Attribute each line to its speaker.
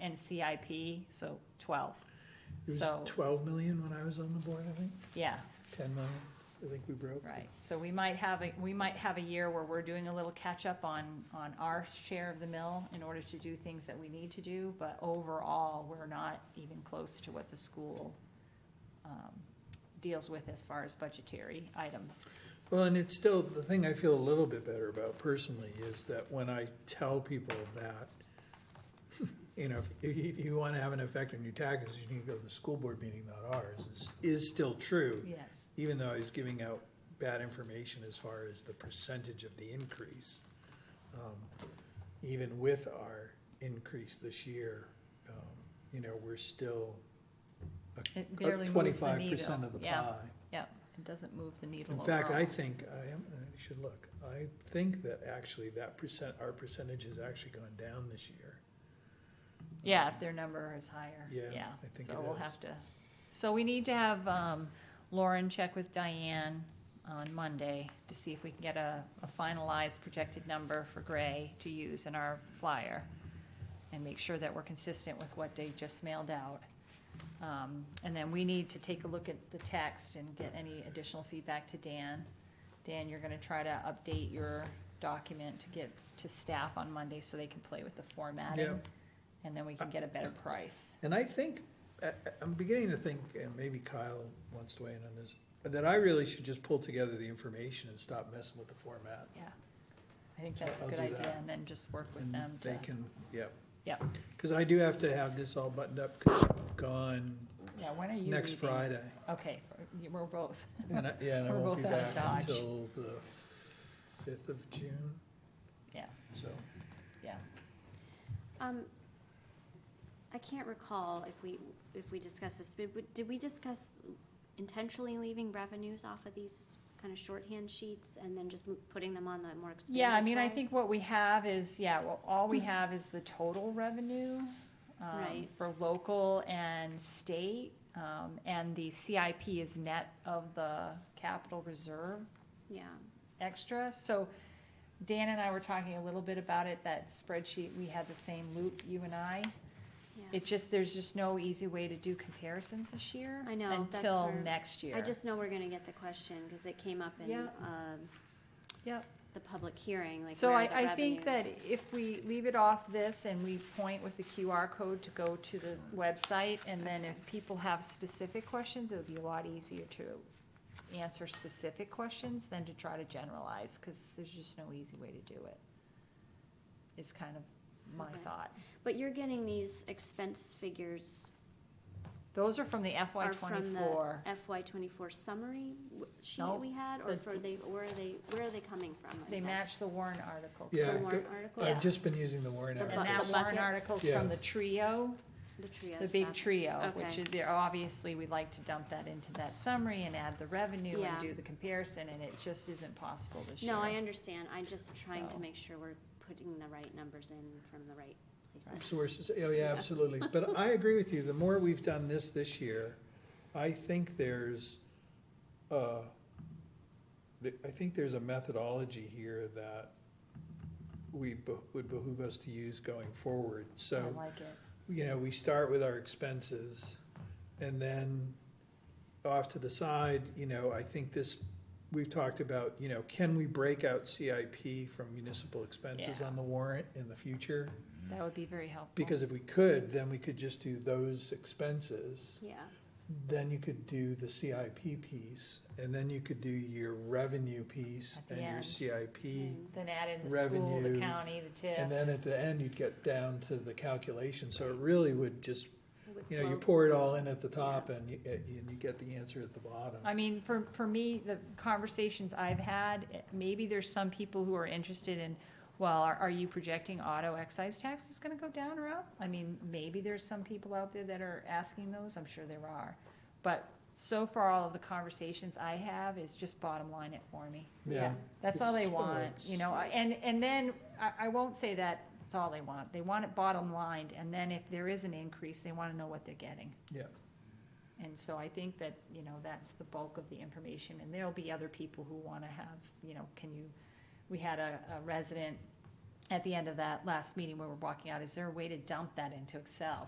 Speaker 1: and CIP, so twelve.
Speaker 2: It was
Speaker 1: So-
Speaker 2: twelve million when I was on the board, I think,
Speaker 1: Yeah,
Speaker 2: ten million, I think we broke.
Speaker 1: right. So we might have, a we might have a year where we're doing a little catch-up on, on our share of the mill in order to do things that we need to do, but overall, we're not even close to what the school, um, deals with as far as budgetary items.
Speaker 2: Well, and it's still, the thing I feel a little bit better about personally is that when I tell people that, you know, if, if you wanna have an effect on your taxes, you need to go to the school board meeting, not ours, is, is still true.
Speaker 1: Yes,
Speaker 2: Even though I was giving out bad information as far as the percentage of the increase. um, Even with our increase this year, um, you know, we're still
Speaker 1: it barely moves the
Speaker 2: Uh, twenty-five percent
Speaker 1: needle.
Speaker 2: of the pie.
Speaker 1: Yeah, yeah, it doesn't move the needle
Speaker 2: In
Speaker 1: overall.
Speaker 2: fact, I think, I am, I should look, I think that actually that percent, our percentage has actually gone down this year.
Speaker 1: Yeah, if their number is higher,
Speaker 2: Yeah,
Speaker 1: yeah,
Speaker 2: I think
Speaker 1: so
Speaker 2: it
Speaker 1: we'll
Speaker 2: is.
Speaker 1: have to, so we need to have, um, Lauren check with Diane on Monday to see if we can get a, a finalized projected number for Gray to use in our flyer and make sure that we're consistent with what they just mailed out. Um, and then we need to take a look at the text and get any additional feedback to Dan. Dan, you're gonna try to update your document to get to staff on Monday so they can play with the formatting.
Speaker 2: Yeah.
Speaker 1: And then we can get a better price.
Speaker 2: And I think, I, I- I'm beginning to think, and maybe Kyle wants to weigh in on this, that I really should just pull together the information and stop messing with the format.
Speaker 1: Yeah. I think
Speaker 2: So
Speaker 1: that's a
Speaker 2: I'll
Speaker 1: good
Speaker 2: do
Speaker 1: idea,
Speaker 2: that.
Speaker 1: and then just work with
Speaker 2: And
Speaker 1: them to,
Speaker 2: They can, yep,
Speaker 1: yep.
Speaker 2: because I do have to have this all buttoned up, 'cause I'm gone
Speaker 1: Yeah, when are you
Speaker 2: next
Speaker 1: leaving?
Speaker 2: Friday.
Speaker 1: Okay, for- you- we're both.
Speaker 2: And I, yeah, and I
Speaker 1: We're
Speaker 2: won't be
Speaker 1: both out of
Speaker 2: back
Speaker 1: Dodge.
Speaker 2: until the fifth of June,
Speaker 1: Yeah,
Speaker 2: so.
Speaker 1: yeah.
Speaker 3: Um, I can't recall if we, if we discussed this, but but did we discuss intentionally leaving revenues off of these kind of shorthand sheets and then just l- putting them on the more expanded?
Speaker 1: Yeah, I mean, I
Speaker 3: way?
Speaker 1: think what we have is, yeah, well, all we have is the total revenue, um,
Speaker 3: Hmm. Right.
Speaker 1: for local and state. Um, and the CIP is net of the capital reserve
Speaker 3: Yeah,
Speaker 1: extra, so Dan and I were talking a little bit about it, that spreadsheet, we had the same loop, you and I.
Speaker 3: yeah.
Speaker 1: It just, there's just no easy way to do comparisons this year.
Speaker 3: I know, that's
Speaker 1: Until
Speaker 3: where-
Speaker 1: next year.
Speaker 3: I just know we're gonna get the question, cause it came up in,
Speaker 1: Yeah.
Speaker 3: um,
Speaker 1: Yep.
Speaker 3: the public hearing, like
Speaker 1: So
Speaker 3: where
Speaker 1: I,
Speaker 3: are the
Speaker 1: I think that
Speaker 3: revenues?
Speaker 1: if we leave it off this and we point with the QR code to go to the website, and then if people have specific questions, it would be a lot easier to answer specific questions than to try to generalize, cause there's just no easy way to do it. Is kind of my
Speaker 3: Okay.
Speaker 1: thought.
Speaker 3: But you're getting these expense figures
Speaker 1: Those are from the FY
Speaker 3: are from the
Speaker 1: twenty-four.
Speaker 3: FY twenty-four summary w- sheet
Speaker 1: No,
Speaker 3: we had, or
Speaker 1: the-
Speaker 3: for they, where are they, where are they coming from?
Speaker 1: They
Speaker 3: Is that-
Speaker 1: match the Warren article.
Speaker 2: Yeah,
Speaker 3: The
Speaker 2: I've
Speaker 3: warrant
Speaker 2: got-
Speaker 3: article?
Speaker 2: I've
Speaker 1: Yeah.
Speaker 2: just been using the warrant.
Speaker 3: The
Speaker 2: article.
Speaker 1: And that
Speaker 3: Buckets.
Speaker 1: Warren
Speaker 3: Buckets.
Speaker 1: articles
Speaker 2: Yeah.
Speaker 1: from the trio,
Speaker 3: The trio
Speaker 1: the big
Speaker 3: stuff.
Speaker 1: trio, which
Speaker 3: uh, Okay.
Speaker 1: is, there, obviously, we'd like to dump that into that summary and add the revenue and
Speaker 3: Yeah.
Speaker 1: do the comparison, and it just isn't possible this year.
Speaker 3: No, I understand, I'm just trying
Speaker 1: So.
Speaker 3: to make sure we're putting the right numbers in from the right places.
Speaker 2: Sources, oh, yeah, absolutely. But I agree with you, the more we've done this this year, I think there's, uh, th- I think there's a methodology here that we, be- would behoove us to use going forward.
Speaker 1: I
Speaker 2: So,
Speaker 1: like it,
Speaker 2: you know, we start with our expenses, and then off to the side, you know, I think this, we've talked about, you know, can we break out CIP from municipal expenses
Speaker 1: Yeah.
Speaker 2: on the warrant in the future?
Speaker 1: that would be very helpful.
Speaker 2: Because if we could, then we could just do those expenses,
Speaker 3: Yeah,
Speaker 2: then you could do the CIP piece, and then you could do your revenue piece
Speaker 1: At the
Speaker 2: and your
Speaker 1: end. Mm-hmm.
Speaker 2: CIP.
Speaker 3: Mm.
Speaker 1: Then add in the school, the
Speaker 2: Revenue,
Speaker 1: county, the
Speaker 2: And
Speaker 1: TIF,
Speaker 2: then at the end, you'd get down to the calculation, so it really would just,
Speaker 3: it would
Speaker 2: you know, you
Speaker 3: flow.
Speaker 2: pour it all in at the top and you, and you get the answer at the bottom.
Speaker 1: I mean, for, for me, the conversations I've had, eh, maybe there's some people who are interested in, well, are, are you projecting auto excise tax is gonna go down or up? I mean, maybe there's some people out there that are asking those, I'm sure there are. But so far, all of the conversations I have is just bottom line it for me.
Speaker 2: Yeah.
Speaker 1: That's all they
Speaker 2: It's-
Speaker 1: want,
Speaker 2: it's-
Speaker 1: you know, I- and, and then, I, I won't say that it's all they want, they want it bottom lined, and then if there is an increase, they wanna know what they're getting.
Speaker 2: Yeah.
Speaker 1: And so I think that, you know, that's the bulk of the information, and there'll be other people who wanna have, you know, can you, we had a, a resident at the end of that last meeting where we're walking out, is there a way to dump that into Excel